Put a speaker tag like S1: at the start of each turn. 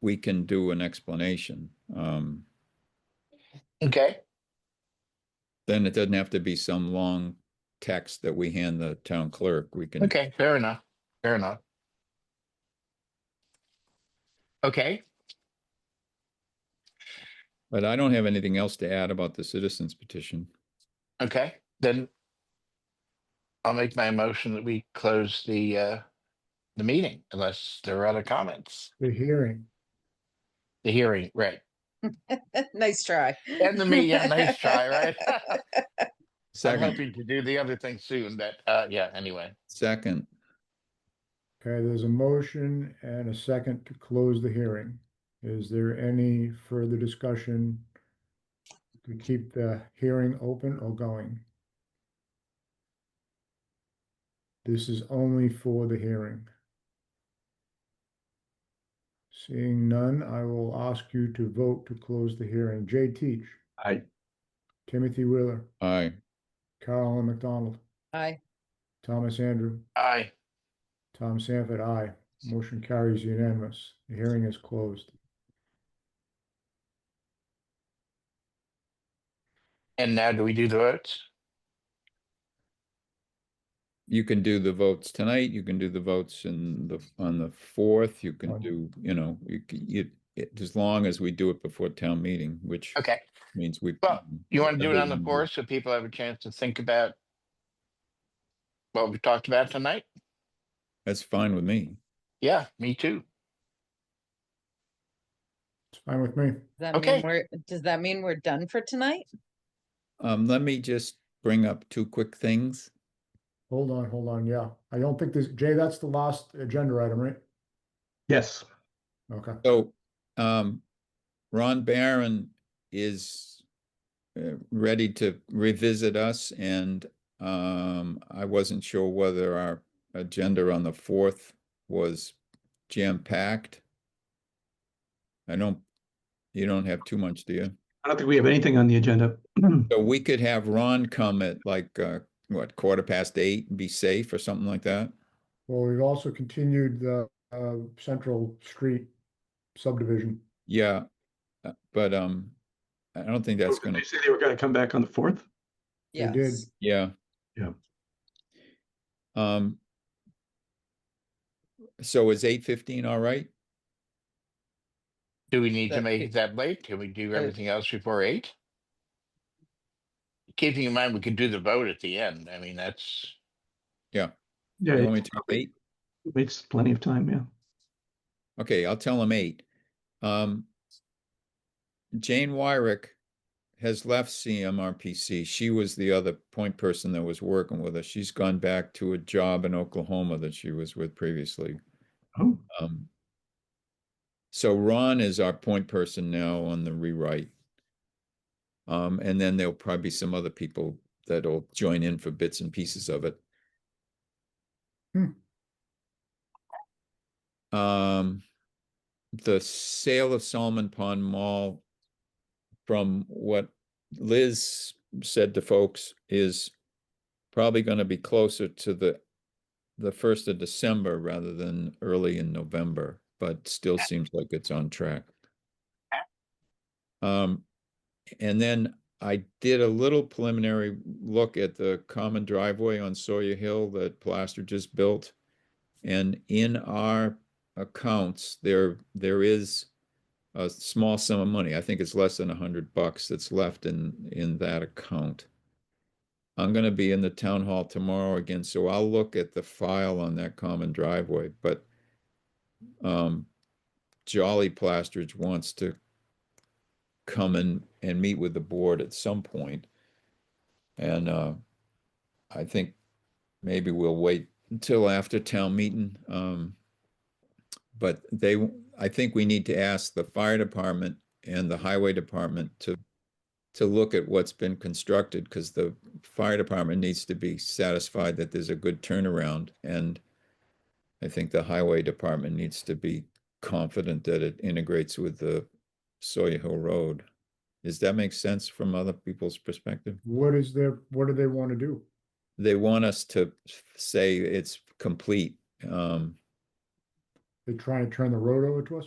S1: we can do an explanation. Um,
S2: Okay,
S1: then it doesn't have to be some long text that we hand the town clerk. We can.
S2: okay, fair enough, fair enough. Okay,
S1: But I don't have anything else to add about the citizens petition.
S2: okay, then I'll make my motion that we close the, uh, the meeting unless there are other comments,
S3: The hearing.
S2: the hearing, right?
S4: Nice try.
S2: And the meeting, nice try, right? I'm
S1: Second,
S2: hoping to do the other thing soon, but, uh, yeah, anyway,
S1: second,
S3: Okay, there's a motion and a second to close the hearing. Is there any further discussion to keep the hearing open or going? This is only for the hearing. Seeing none, I will ask you to vote to close the hearing. Jay Teach.
S1: Aye.
S3: Timothy Wheeler,
S1: aye.
S3: Carolyn McDonald,
S4: Aye.
S3: Thomas Andrew.
S2: aye.
S3: Tom Sanford, aye. Motion carries unanimous. The hearing is closed.
S2: And now do we do the votes?
S1: You can do the votes tonight. You can do the votes in the, on the fourth. You can
S3: Fine.
S1: do, you know, you, c- you, it, as long as we do it before town meeting, which
S2: Okay,
S1: means we.
S2: Well, you want to do it on
S1: Um,
S2: the fourth so people have a chance to think about what we talked about tonight?
S1: That's fine with me.
S2: Yeah, me too.
S3: It's fine with me.
S4: Does that
S2: Okay.
S4: mean we're, does that mean we're done for tonight?
S1: Um, let me just bring up two quick things.
S3: Hold on, hold on. Yeah, I don't think this, Jay, that's the last agenda item, right?
S5: Yes.
S3: Okay.
S1: So, um, Ron Barron is uh, ready to revisit us and, um, I wasn't sure whether our agenda on the fourth was jam-packed. I don't, you don't have too much, do you?
S5: I don't think we have anything on the agenda.
S1: So we could have Ron come at like, uh, what, quarter past eight and be safe or something like that?
S3: Well, we've also continued the uh, Central Street subdivision.
S1: Yeah, uh, but, um, I don't think that's gonna
S5: They say they were gonna come back on the fourth?
S3: They did.
S4: Yes.
S1: Yeah.
S5: Yeah.
S1: Um. So is eight fifteen all right?
S2: Do we need to
S4: That-
S2: make it that late? Can we do
S4: Uh,
S2: everything else before eight? Keeping in mind, we could do the vote at the end. I mean, that's,
S5: Yeah,
S1: You want me
S5: it
S1: to do eight?
S5: makes plenty of time, yeah.
S1: Okay, I'll tell him eight. Um. Jane Wyrick has left CMRPC. She was the other point person that was working with us. She's gone back to a job in Oklahoma that she was with previously.
S5: Oh,
S1: Um. So Ron is our point person now on the rewrite. Um, and then there'll probably be some other people that'll join in for bits and pieces of it. Um, the sale of Solomon Pond Mall, from what Liz said to folks, is probably gonna be closer to the the first of December rather than early in November, but still seems like it's on track. Um, and then I did a little preliminary look at the common driveway on Sawyer Hill that Plaster just built. And in our accounts, there, there is a small sum of money. I think it's less than a hundred bucks that's left in, in that account. I'm gonna be in the town hall tomorrow again, so I'll look at the file on that common driveway, but um, Jolly Plastridge wants to come and, and meet with the board at some point. And, uh, I think maybe we'll wait until after town meeting, um, but they, I think we need to ask the fire department and the highway department to to look at what's been constructed, because the fire department needs to be satisfied that there's a good turnaround, and I think the highway department needs to be confident that it integrates with the Sawyer Hill Road. Does that make sense from other people's perspective?
S3: What is their, what do they want to do?
S1: They want us to say it's complete, um,
S3: They trying to turn the road over to us?